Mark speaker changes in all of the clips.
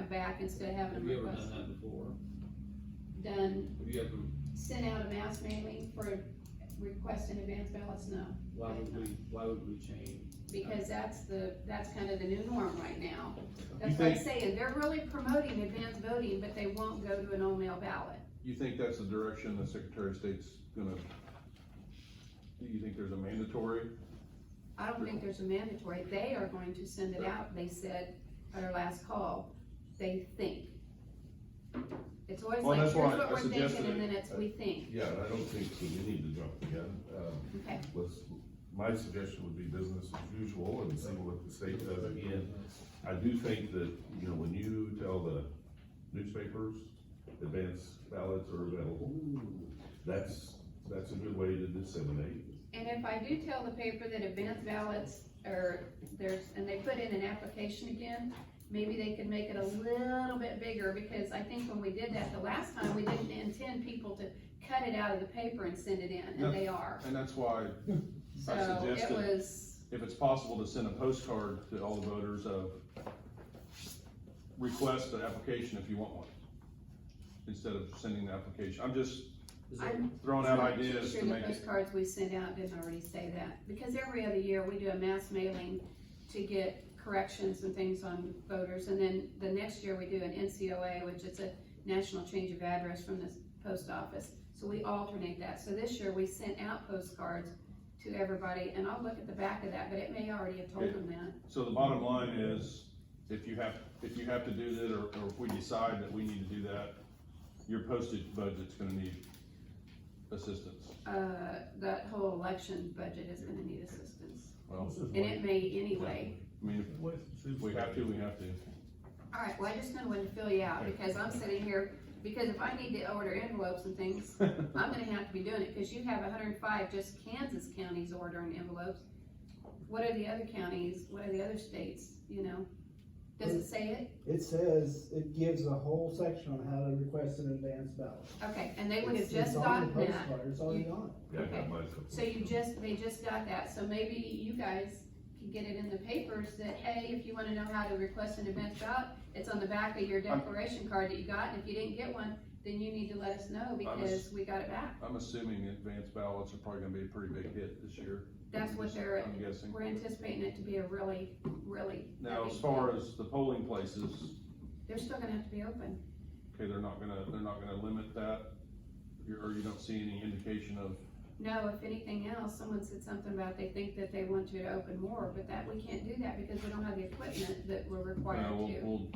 Speaker 1: back instead of having
Speaker 2: Have
Speaker 1: them
Speaker 2: you ever done
Speaker 1: request
Speaker 2: that before?
Speaker 1: done,
Speaker 2: Have you ever,
Speaker 1: sent out a mass mailing for requesting advance ballots, no.
Speaker 2: why would we, why would we change?
Speaker 1: Because that's the, that's kind of the new norm right now.
Speaker 3: You
Speaker 1: That's what I'm
Speaker 3: think-
Speaker 1: saying, they're really promoting advance voting, but they won't go to an all-mail ballot.
Speaker 3: You think that's the direction the Secretary of State's gonna, do you think there's a mandatory?
Speaker 1: I don't think there's a mandatory, they are going to send it out, they said at our last call, they think. It's always
Speaker 3: Well,
Speaker 1: like, here's
Speaker 3: that's why
Speaker 1: what
Speaker 3: I
Speaker 1: we're thinking,
Speaker 3: suggested
Speaker 1: and
Speaker 3: it.
Speaker 1: then it's, we think,
Speaker 4: Yeah, I don't think so, we need to jump the gun, um,
Speaker 1: okay,
Speaker 4: let's, my suggestion would be business as usual and see what the state does again. I do think that, you know, when you tell the newspapers, advance ballots are available, that's, that's a good way to disseminate.
Speaker 1: and if I do tell the paper that advance ballots are, there's, and they put in an application again, maybe they could make it a little bit bigger, because I think when we did that the last time, we didn't intend people to cut it out of the paper and send it in, and they are.
Speaker 3: And that's why,
Speaker 1: So it
Speaker 3: suggested-
Speaker 1: was,
Speaker 3: if it's possible, to send a postcard to all the voters of request an application if you want one, instead of sending the application. I'm just
Speaker 2: Is
Speaker 1: I
Speaker 2: there-
Speaker 3: throwing out ideas
Speaker 1: Sure,
Speaker 3: to
Speaker 1: the
Speaker 3: make it,
Speaker 1: postcards we sent out didn't already say that, because every other year we do a mass mailing to get corrections and things on voters, and then the next year we do an NCOA, which is a national change of address from the post office. So we alternate that, so this year we sent out postcards to everybody, and I'll look at the back of that, but it may already have told them that.
Speaker 3: so the bottom line is, if you have, if you have to do that, or, or if we decide that we need to do that, your postage budget's gonna need assistance.
Speaker 1: Uh, that whole election budget is gonna need assistance,
Speaker 3: Well,
Speaker 1: and it may anyway.
Speaker 3: I mean, if we have to, we have to.
Speaker 1: All right, well, I just kind of wanted to fill you out, because I'm sitting here, because if I need to order envelopes and things, I'm gonna have to be doing it, because you have hundred and five just Kansas counties ordering envelopes. What are the other counties, what are the other states, you know? Does it say it?
Speaker 5: It says, it gives a whole section on how to request an advance ballot.
Speaker 1: Okay, and they would have
Speaker 5: It's-
Speaker 1: just
Speaker 5: it's on the
Speaker 1: gotten that,
Speaker 5: postcard, It's already on. it.
Speaker 4: Yeah, I got
Speaker 1: Okay.
Speaker 4: my-
Speaker 1: so you just, they just got that, so maybe you guys can get it in the papers that, hey, if you wanna know how to request an advance ballot, it's on the back of your declaration card that you got, and if you didn't get one, then you need to let us know, because we got it back.
Speaker 3: I'm assuming advance ballots are probably gonna be a pretty big hit this year.
Speaker 1: That's what they're,
Speaker 3: I'm guessing.
Speaker 1: we're anticipating it to be a really, really.
Speaker 3: Now,
Speaker 1: heavy
Speaker 3: as far
Speaker 1: deal.
Speaker 3: as the polling places,
Speaker 1: They're still gonna have to be open.
Speaker 3: okay, they're not gonna, they're not gonna limit that, You- or you don't see any indication of,
Speaker 1: No, if anything else, someone said something about they think that they want you to open more, but that, we can't do that because we don't have the equipment that we're required
Speaker 3: no, we'll,
Speaker 1: to.
Speaker 3: we'll,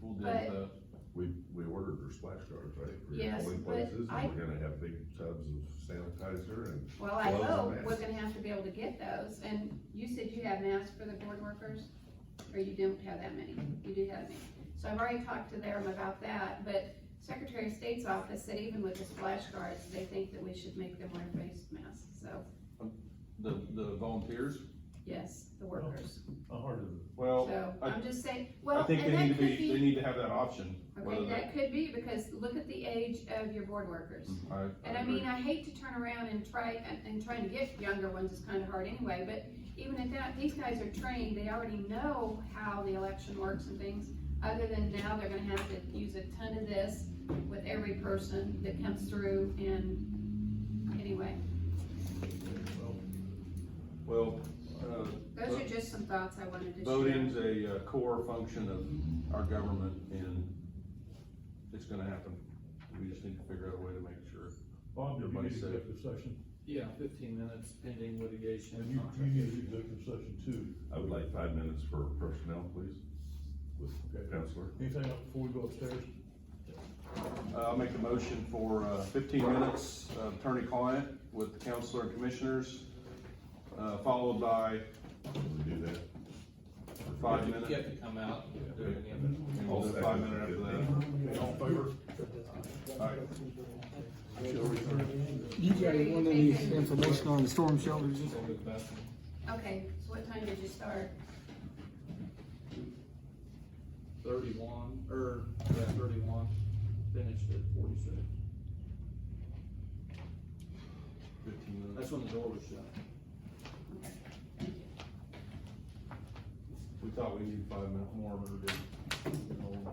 Speaker 3: we'll deal with that.
Speaker 4: We, we ordered her splash guards, right? for your
Speaker 1: Yes,
Speaker 4: polling
Speaker 1: but
Speaker 4: places,
Speaker 1: I-
Speaker 4: And we're gonna have big tubs of sanitizer and
Speaker 1: Well, I
Speaker 4: Gloves and
Speaker 1: hope we're
Speaker 4: masks.
Speaker 1: gonna have to be able to get those, and you said you have masks for the board workers, or you don't have that many, you do have many. So I've already talked to them about that, but Secretary of State's office said even with the splash guards, they think that we should make them wear face masks, so,
Speaker 3: The, the volunteers,
Speaker 1: yes, the workers.
Speaker 3: well,
Speaker 1: So,
Speaker 3: I-
Speaker 1: I'm just saying,
Speaker 3: I
Speaker 1: well,
Speaker 3: think
Speaker 1: and
Speaker 3: they
Speaker 1: that
Speaker 3: need to
Speaker 1: could
Speaker 3: be, they
Speaker 1: be,
Speaker 3: need to have that option, whether
Speaker 1: okay,
Speaker 3: they.
Speaker 1: that could be, because look at the age of your board workers.
Speaker 3: I,
Speaker 1: And
Speaker 3: I
Speaker 1: I
Speaker 3: agree.
Speaker 1: mean, I hate to turn around and try, and, and trying to get younger ones is kinda hard anyway, but even at that, these guys are trained, they already know how the election works and things. Other than now, they're gonna have to use a ton of this with every person that comes through and, anyway.
Speaker 3: Well, uh,
Speaker 1: Those are just some thoughts I wanted to share.
Speaker 3: Voting's a uh, core function of our government and it's gonna happen. We just need to figure out a way to make sure.
Speaker 6: Bob, did you
Speaker 3: Everybody
Speaker 6: need
Speaker 3: said it.
Speaker 6: executive session?
Speaker 2: Yeah, fifteen minutes pending litigation.
Speaker 6: And you, you need executive session too.
Speaker 4: I would like five minutes for personnel, please, with
Speaker 6: Okay.
Speaker 4: counselor.
Speaker 6: Anything else before we go upstairs?
Speaker 3: Uh, I'll make a motion for uh, fifteen minutes of attorney-client with the counselor and commissioners, uh, followed by
Speaker 4: Can we do that?
Speaker 3: five
Speaker 2: You
Speaker 3: minutes.
Speaker 2: have to come out and do it again.
Speaker 3: And we'll do five minutes after that.
Speaker 6: All in favor?
Speaker 3: Alright.
Speaker 7: You got
Speaker 1: Sure, you
Speaker 7: one of
Speaker 1: take
Speaker 7: these
Speaker 1: it.
Speaker 7: information on the storm shelters?
Speaker 2: Just go to the bathroom.
Speaker 1: Okay, so what time did you start?
Speaker 2: Thirty-one, or, yeah, thirty-one, finished at forty-six.
Speaker 3: Fifteen minutes.
Speaker 2: That's when the door was shut.
Speaker 1: Okay, thank you.
Speaker 3: We thought we needed five minutes more, but we didn't.